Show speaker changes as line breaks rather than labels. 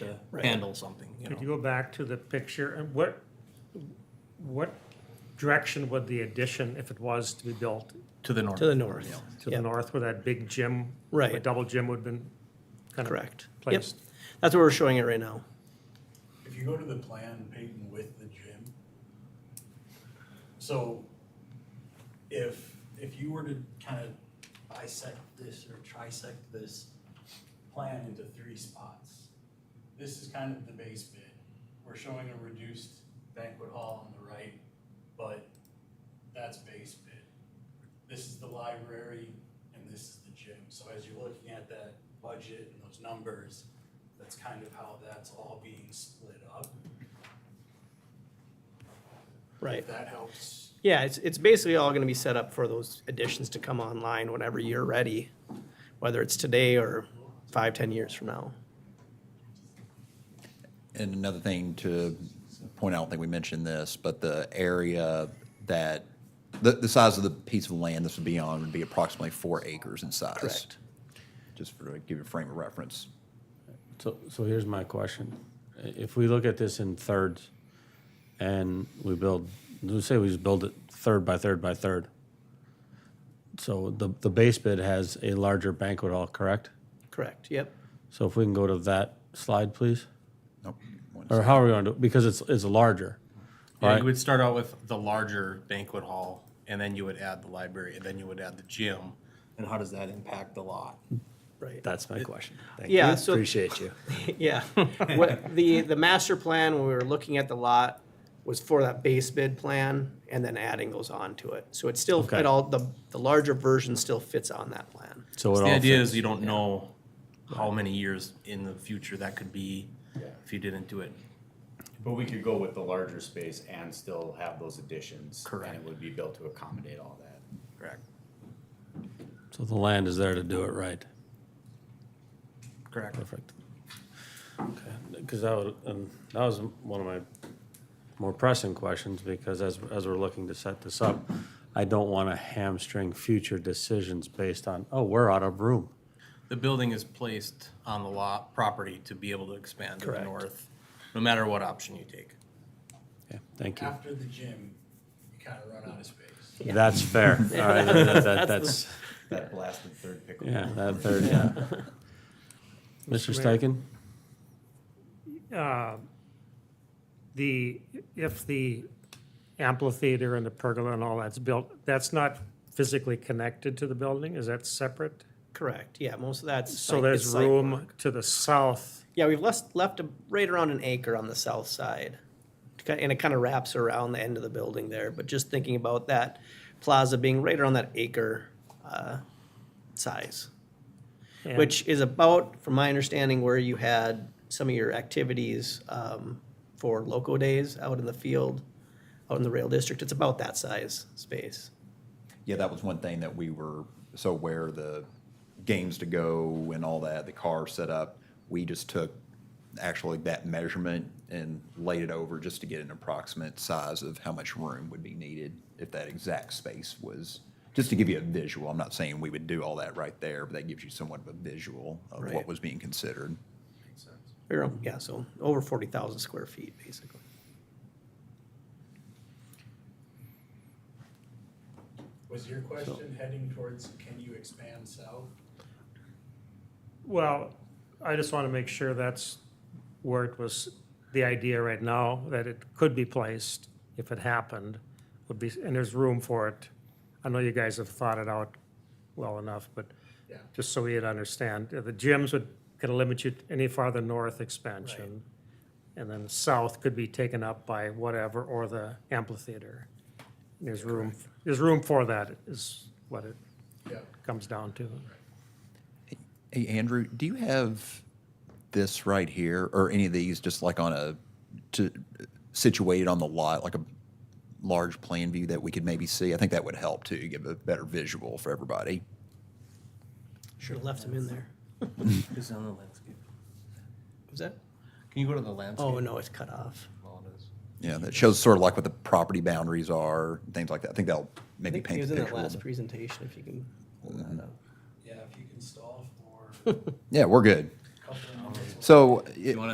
to
Right.
handle something, you
Could you
know.
go back to the picture, and what, what direction would the addition, if it was to be built,
To the north.
to the north.
to the
Yep,
north where that big gym?
Right.
A double gym would have been kind of
Correct. Yep,
placed?
that's where we're showing it right now.
If you go to the plan, Peyton, with the gym, so if, if you were to kind of bisect this or trisect this plan into three spots, this is kind of the base bit. We're showing a reduced banquet hall on the right, but that's base bit. This is the library and this is the gym. So as you're looking at that budget and those numbers, that's kind of how that's all being split up.
Right.
If that helps.
Yeah, it's, it's basically all gonna be set up for those additions to come online whenever you're ready, whether it's today or five, ten years from now.
And another thing to point out, I don't think we mentioned this, but the area that, the, the size of the piece of land this would be on would be approximately four acres in size.
Correct.
Just for, to give you a frame of reference.
So, so here's my question. I- If we look at this in thirds and we build, let's say we just build it third by third by third. So the, the base bid has a larger banquet hall, correct?
Correct, yep.
So if we can go to that slide, please?
Nope. One
Or how are we going to, because it's, it's larger.
Yeah, you
Right?
would start out with the larger banquet hall, and then you would add the library, and then you would add the gym. And how does that impact the lot?
Right.
That's my question. Thank
Yeah,
you.
so-
Appreciate you.
Yeah. What, the, the master plan, when we were looking at the lot, was for that base bid plan and then adding those on to it. So it's still,
Okay.
it all, the, the larger version still fits on that plan.
So
The
it all
idea
fits.
is you don't know how many years in the future that could be if you didn't do it.
But we could go with the larger space and still have those additions. And
Correct.
it would be built to accommodate all that.
Correct.
So the land is there to do it right.
Correct.
Perfect. Because that would, um, that was one of my more pressing questions, because as, as we're looking to set this up, I don't want to hamstring future decisions based on, oh, we're out of room.
The building is placed on the lot property to be able to expand to the
Correct.
north, no matter what option you take.
Yeah, thank you.
After the gym, you kind of run out of space.
That's fair. All right, that- that- that's,
That blasted third pickle.
yeah, that third, yeah. Mr. Steichen?
Uh, The, if the amphitheater and the pergola and all that's built, that's not physically connected to the building? Is that separate?
Correct, yeah, most of that's.
So
site-
there's
it's site work.
room to the south,
Yeah, we've left, left a- right around an acre on the south side. To ki- And it kind of wraps around the end of the building there, but just thinking about that plaza being right around that acre uh, size,
and-
which is about, from my understanding, where you had some of your activities um, for loco days out in the field, out in the rail district. It's about that size space.
Yeah, that was one thing that we were, so where the games to go and all that, the car setup, we just took actually that measurement and laid it over just to get an approximate size of how much room would be needed if that exact space was, just to give you a visual. I'm not saying we would do all that right there, but that gives you somewhat of a visual of
Right.
what was being considered.
Or, um, Yeah, so over 40,000 square feet, basically.
Was your question heading towards, can you expand south?
Well, I just want to make sure that's where it was, the idea right now, that it could be placed if it happened, would be, and there's room for it. I know you guys have thought it out well enough, but
Yeah.
just so we'd understand, uh, the gyms would, kind of limit you to any farther north expansion. And then south could be taken up by whatever, or the amphitheater. There's room, there's room for that is what it
Yeah.
comes down to.
Hey, Andrew, do you have this right here or any of these just like on a, to, situated on the lot, like a large plan view that we could maybe see? I think that would help too, give a better visual for everybody.
Should have left them in there.
Is on the landscape.
Was that?
Can you go to the landscape?
Oh, no, it's cut off.
Well, it is.
Yeah, that shows sort of like what the property boundaries are, things like that. I think that'll
I
maybe
think he
paint
was
the
in
picture.
that
a little
last
bit.
presentation, if you can pull that up.
Yeah, if you can stall for a
Yeah, we're good.
couple of minutes.
So. it-
You wanna